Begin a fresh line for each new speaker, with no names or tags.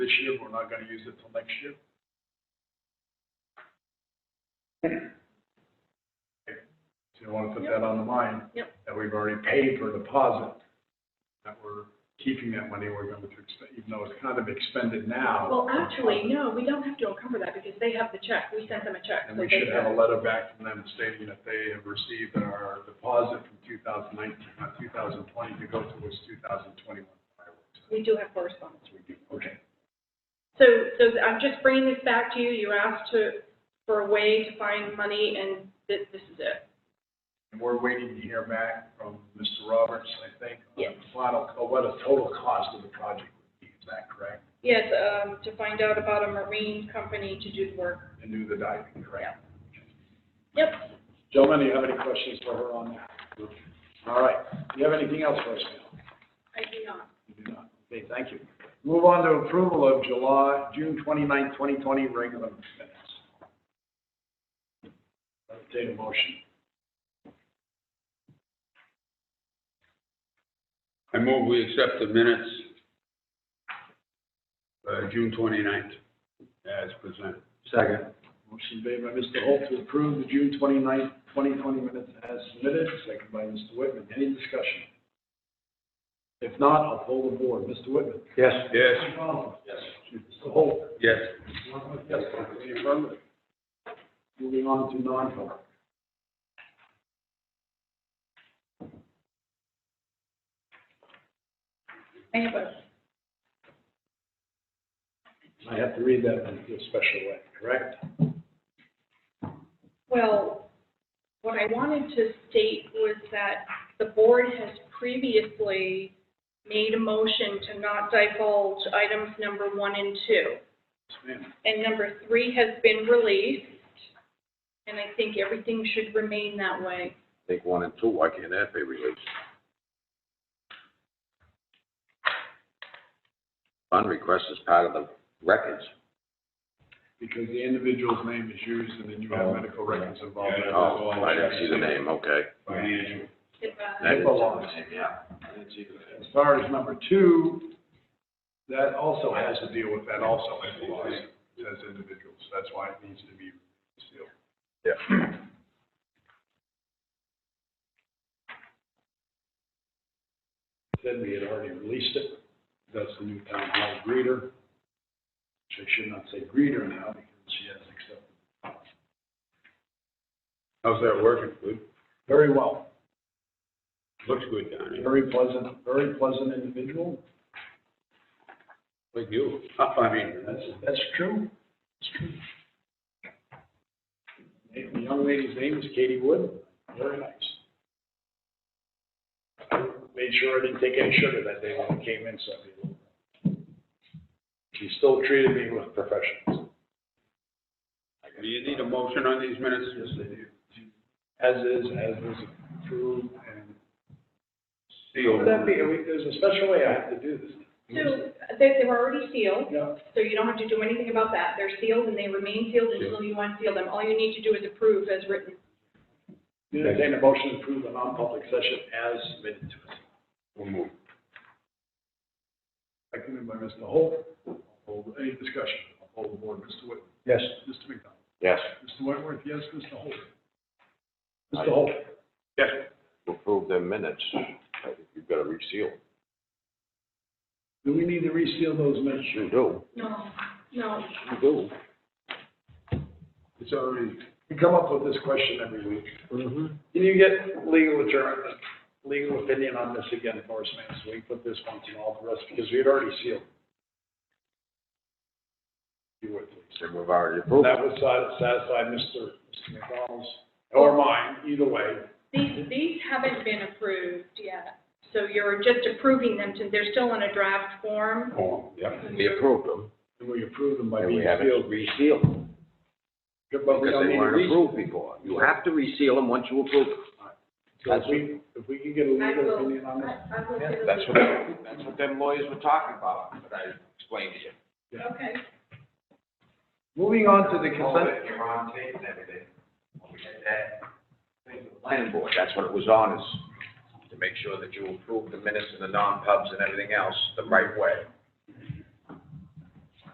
this year, we're not gonna use it till next year. Okay, So you wanna put that on the mind?
Yep.
That we've already paid for a deposit, that we're keeping that money, we're going to, expe- even though it's kind of expended now.
Well, actually, no, we don't have to encumber that because they have the check. We sent them a check.
And
so
we
they
should have a
can-
letter back from them stating that they have received our deposit from 2019, not 2020, to go towards 2021 fireworks.
We do have correspondence.
So we do- Okay.
So, so I'm just bringing this back to you. You asked to, for a way to find money and thi- this is it.
And we're waiting to hear back from Mr. Roberts, I think, Uh,
Yes.
on the final, co- what the total cost of the project would be. Is that correct?
Yes, um, to find out about a marine company to do the work.
And do the diving, correct?
Yep.
Gentlemen, do you have any questions for her on that? All right. Do you have anything else for us, Mel?
I do not.
You do not. Okay, thank you. Move on to approval of July, June 29, twenty regular minutes. Entertain a motion.
I move we accept the minutes, uh, June 29th, as presented. Second.
Motion made by Mr. Holt to approve the June 29, twenty minutes as submitted, second by Mr. Whitman. Any discussion? If not, I'll poll the board. Mr. Whitman.
Yes. Yes.
Mr. Donovan. Yes. Mr. Holt.
Yes.
Yes. The affirmative. Moving on to non-public.
I have a,
I have to read that in a special way, correct?
well, what I wanted to state was that the board has previously made a motion to not divulge items number one and two.
Yes, ma'am.
And number three has been released, and I think everything should remain that way.
I think one and two, why can't that be released? Fund request is part of the records.
Because the individual's name is used and then you have medical records involved.
Yeah.
Oh, I didn't see the name, okay.
Financial.
uh,
That is-
belongs.
Yeah.
As far as number two, that also has to deal with that also, it belongs as individuals. That's why it needs to be sealed. Said we had already released it. That's the new town hall greeter. Which I should not say greeter now because she has accepted.
How's that working? Good?
Very well,
Looks good down here.
very pleasant, very pleasant individual.
Like you. I mean,
That's, that's true. That's true. The young lady's name is Katie Wood, very nice. Made sure I didn't take any sugar that day when I came in, so. I did a little. She still treated me with professionalism.
do you need a motion on these minutes?
Yes, they do. As is, as was approved, and.
Sealed.
Would that be, are we- there's a special way I have to do this.
So, they, they were already sealed,
Yeah,
so you don't have to do anything about that. They're sealed and they remain sealed until you unseal them. All you need to do is approve as written.
entertain a motion to approve the non-public session as submitted to us.
We'll move.
Seconded by Mr. Holt. Hold- Any discussion? I'll Hold the board. Mr. Whitman.
Yes.
Mr. McDonald.
Yes,
Mr. Whitworth, yes. Mr. Holt.
Aye.
Mr. Holt.
Yes.
approve the minutes, I think you've got to reseal.
Do we need to reseal those minutes?
You do,
No, no.
you do.
It's already, we come up with this question every week. Can you get legal adjournment, legal opinion on this again for us, man? So we can put this one to all the rest because we had already sealed. You would, please.
So we've already
And
approved.
That would sat- satisfy Mr. Mr. McDonald's or mine, either way.
These, these haven't been approved yet. So you're just approving them to, they're still in a draft form.
Oh, yeah.
We approved them,
And we approve them by
and
being
we haven't
sealed.
resealed them,
But we
because
don't need
they
to
weren't
reseal.
approved before. You have to reseal them once you approve them.
So if we, if we can get a
I
legal
will-
opinion on this,
I- I will get a-
That's what, that's what them lawyers were talking about, that I explained to you.
Okay.
moving on to the consent.
You're on tape and everything. When we had that, I think the planning board, that's what it was on, is to make sure that you approve the minutes and the non-pubs and everything else the right way.